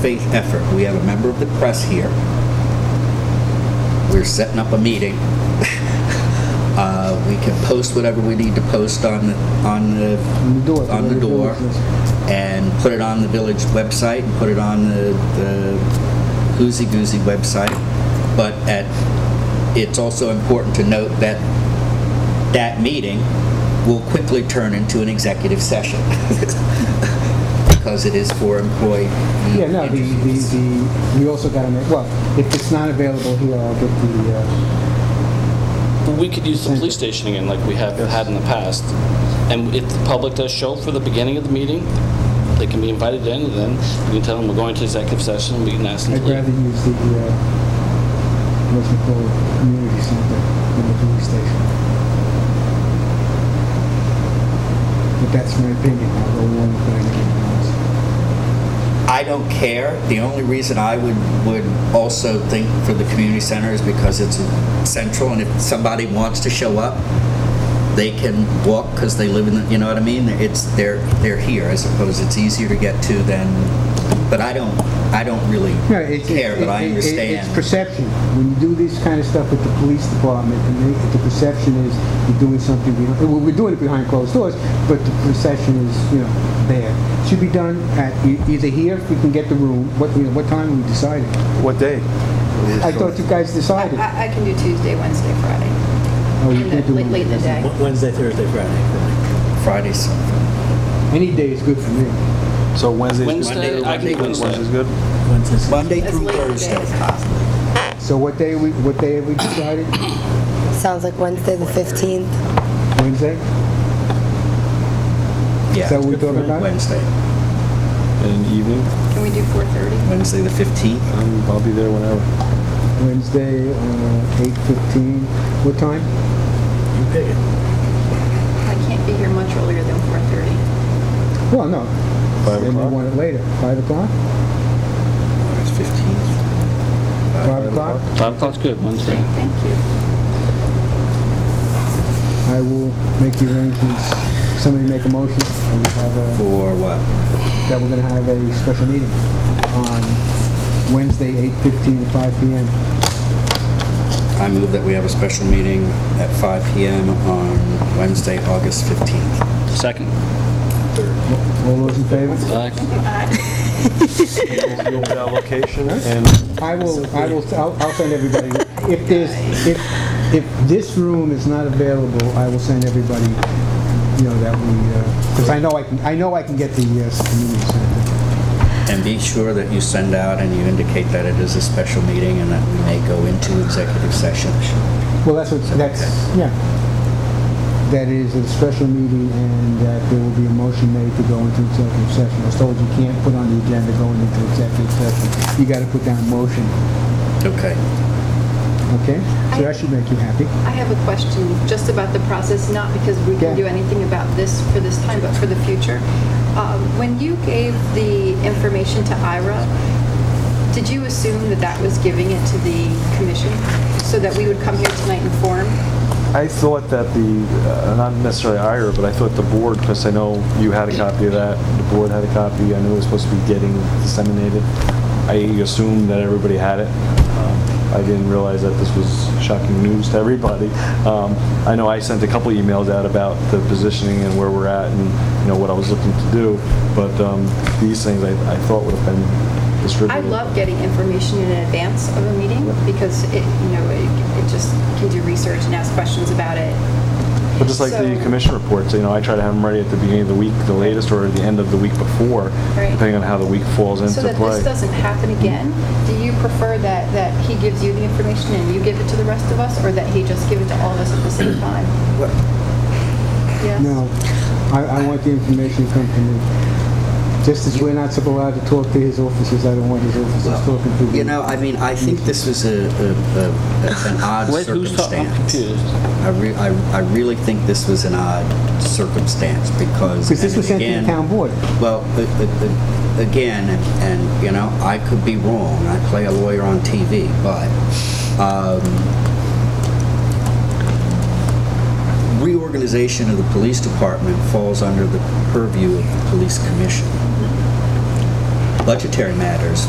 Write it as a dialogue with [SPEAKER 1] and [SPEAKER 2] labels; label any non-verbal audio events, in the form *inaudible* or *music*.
[SPEAKER 1] faith effort. We have a member of the press here. We're setting up a meeting. *laughs* Uh, We can post whatever we need to post on, the on
[SPEAKER 2] the
[SPEAKER 1] the,
[SPEAKER 2] door, the
[SPEAKER 1] on the
[SPEAKER 2] village
[SPEAKER 1] door,
[SPEAKER 2] business.
[SPEAKER 1] and put it on the village website, and put it on the the Oozy Goozy website. But at, it's also important to note that that meeting will quickly turn into an executive session, *laughs* because it is for employee
[SPEAKER 2] Yeah, no, the, the,
[SPEAKER 1] interviews.
[SPEAKER 2] the, we also gotta make, well, if it's not available here, I'll get the, uh,
[SPEAKER 3] We could use the police station again, like we have had in the past. And if the public does show for the beginning of the meeting, they can be invited in, and then we can tell them we're going to executive session, and we can ask them
[SPEAKER 2] I'd
[SPEAKER 3] to
[SPEAKER 2] rather
[SPEAKER 3] leave.
[SPEAKER 2] use the, uh, what's it called, community center than the police station. But that's my opinion, I'll go along with anything else.
[SPEAKER 1] I don't care. The only reason I would, would also think for the community center is because it's central, and if somebody wants to show up, they can walk because they live in the, you know what I mean? It's, they're, they're here, I suppose. It's easier to get to than, but I don't, I don't really
[SPEAKER 2] No, it's- it's-
[SPEAKER 1] care, but I
[SPEAKER 2] it- it- It's
[SPEAKER 1] understand.
[SPEAKER 2] perception. When you do this kind of stuff with the police department, and they- the perception is you're doing something, behind- well, we're doing it behind closed doors, but the perception is, you know, there. Should be done at, e- either here, if we can get the room, what, you know, what time we decided.
[SPEAKER 4] What day?
[SPEAKER 2] I thought you guys decided.
[SPEAKER 5] I, I can do Tuesday, Wednesday, Friday,
[SPEAKER 2] Oh, you
[SPEAKER 5] in
[SPEAKER 2] can't
[SPEAKER 5] the-
[SPEAKER 2] do
[SPEAKER 5] late, late in the
[SPEAKER 2] Wednesday.
[SPEAKER 5] day.
[SPEAKER 6] Wednesday, Thursday, Friday.
[SPEAKER 1] Fridays,
[SPEAKER 2] Any day is good for me.
[SPEAKER 4] So Wednesday's good?
[SPEAKER 3] Wednesday, I can do Wednesday.
[SPEAKER 4] Wednesday's good?
[SPEAKER 6] Wednesday.
[SPEAKER 1] Monday
[SPEAKER 5] As
[SPEAKER 1] through
[SPEAKER 5] late in the day
[SPEAKER 1] Thursday.
[SPEAKER 5] as possible.
[SPEAKER 2] So what day we, what day have we
[SPEAKER 5] *coughs*
[SPEAKER 2] decided?
[SPEAKER 7] Sounds like Wednesday, the 15th.
[SPEAKER 2] Wednesday?
[SPEAKER 1] Yeah.
[SPEAKER 2] So we talk about-
[SPEAKER 1] Wednesday,
[SPEAKER 4] In the evening?
[SPEAKER 5] Can we do 4:30?
[SPEAKER 1] Wednesday the 15th.
[SPEAKER 4] Um, I'll be there whenever.
[SPEAKER 2] Wednesday, uh, 8:15. What time?
[SPEAKER 6] You pick it.
[SPEAKER 5] I can't be here much earlier than 4:30.
[SPEAKER 2] Well, no.
[SPEAKER 4] Five
[SPEAKER 2] Then
[SPEAKER 4] o'clock?
[SPEAKER 2] we want it later. 5 o'clock?
[SPEAKER 1] August 15th.
[SPEAKER 2] 5 o'clock?
[SPEAKER 3] Five o'clock's good, Wednesday.
[SPEAKER 5] Thank you.
[SPEAKER 2] I will make the arrangements. Somebody make a motion and we have a,
[SPEAKER 1] For what?
[SPEAKER 2] that we're gonna have a special meeting on Wednesday, 8:15 to 5 PM.
[SPEAKER 1] I move that we have a special meeting at 5 PM on Wednesday, August 15th.
[SPEAKER 3] Second.
[SPEAKER 2] All those in favor?
[SPEAKER 3] Aye.
[SPEAKER 4] You'll be on location and
[SPEAKER 2] I will, I will, I'll, I'll send everybody, if there's, if, if this room is not available, I will send everybody, you know, that we, because I know I can, I know I can get the, uh, community center.
[SPEAKER 1] And be sure that you send out and you indicate that it is a special meeting and that we may go into executive session.
[SPEAKER 2] Well, that's what, that's, yeah. That is a special meeting and that there will be a motion made to go into executive session. I was told you can't put on the agenda going into executive session. You gotta put down a motion,
[SPEAKER 1] Okay.
[SPEAKER 2] okay? So that should make you happy.
[SPEAKER 5] I have a question just about the process, not because we
[SPEAKER 2] Yeah.
[SPEAKER 5] can do anything about this for this time, but for the future. Uh, When you gave the information to Ira, did you assume that that was giving it to the commission? So that we would come here tonight informed?
[SPEAKER 4] I thought that the, uh, not necessarily Ira, but I thought the board, because I know you had a copy of that, the board had a copy, I knew it was supposed to be getting disseminated. I assumed that everybody had it. Um, I didn't realize that this was shocking news to everybody. Um, I know I sent a couple emails out about the positioning and where we're at and, you know, what I was looking to do, but um, these things I I thought would have been
[SPEAKER 5] I
[SPEAKER 4] distributed.
[SPEAKER 5] love getting information in advance of a meeting because it, you know, it it just can do research and ask questions about it.
[SPEAKER 4] But just like the
[SPEAKER 5] So-
[SPEAKER 4] commission reports, you know, I try to have them ready at the beginning of the week, the latest, or the end of the week before,
[SPEAKER 5] Right.
[SPEAKER 4] depending on how the week falls into
[SPEAKER 5] So that
[SPEAKER 4] play.
[SPEAKER 5] this doesn't happen again, do you prefer that, that he gives you the information and you give it to the rest of us, or that he just give it to all of us at the same time? Yes?
[SPEAKER 2] No, I, I want the information to come to me. Just as we're not allowed to talk to his officers, I don't want his officers talking to me.
[SPEAKER 1] You know, I mean, I think this was a, a- a- a- *laughs* an odd
[SPEAKER 3] Wait, who's talking? I'm
[SPEAKER 1] circumstance.
[SPEAKER 3] confused.
[SPEAKER 1] I re- I, I really think this was an odd circumstance because.
[SPEAKER 2] Because this was
[SPEAKER 1] and
[SPEAKER 2] sent to the
[SPEAKER 1] again-
[SPEAKER 2] town board.
[SPEAKER 1] Well, a- a- a- again, and- and, you know, I could be wrong, I play a lawyer on TV, but um, reorganization of the police department falls under the purview of the police commission. Budgetary matters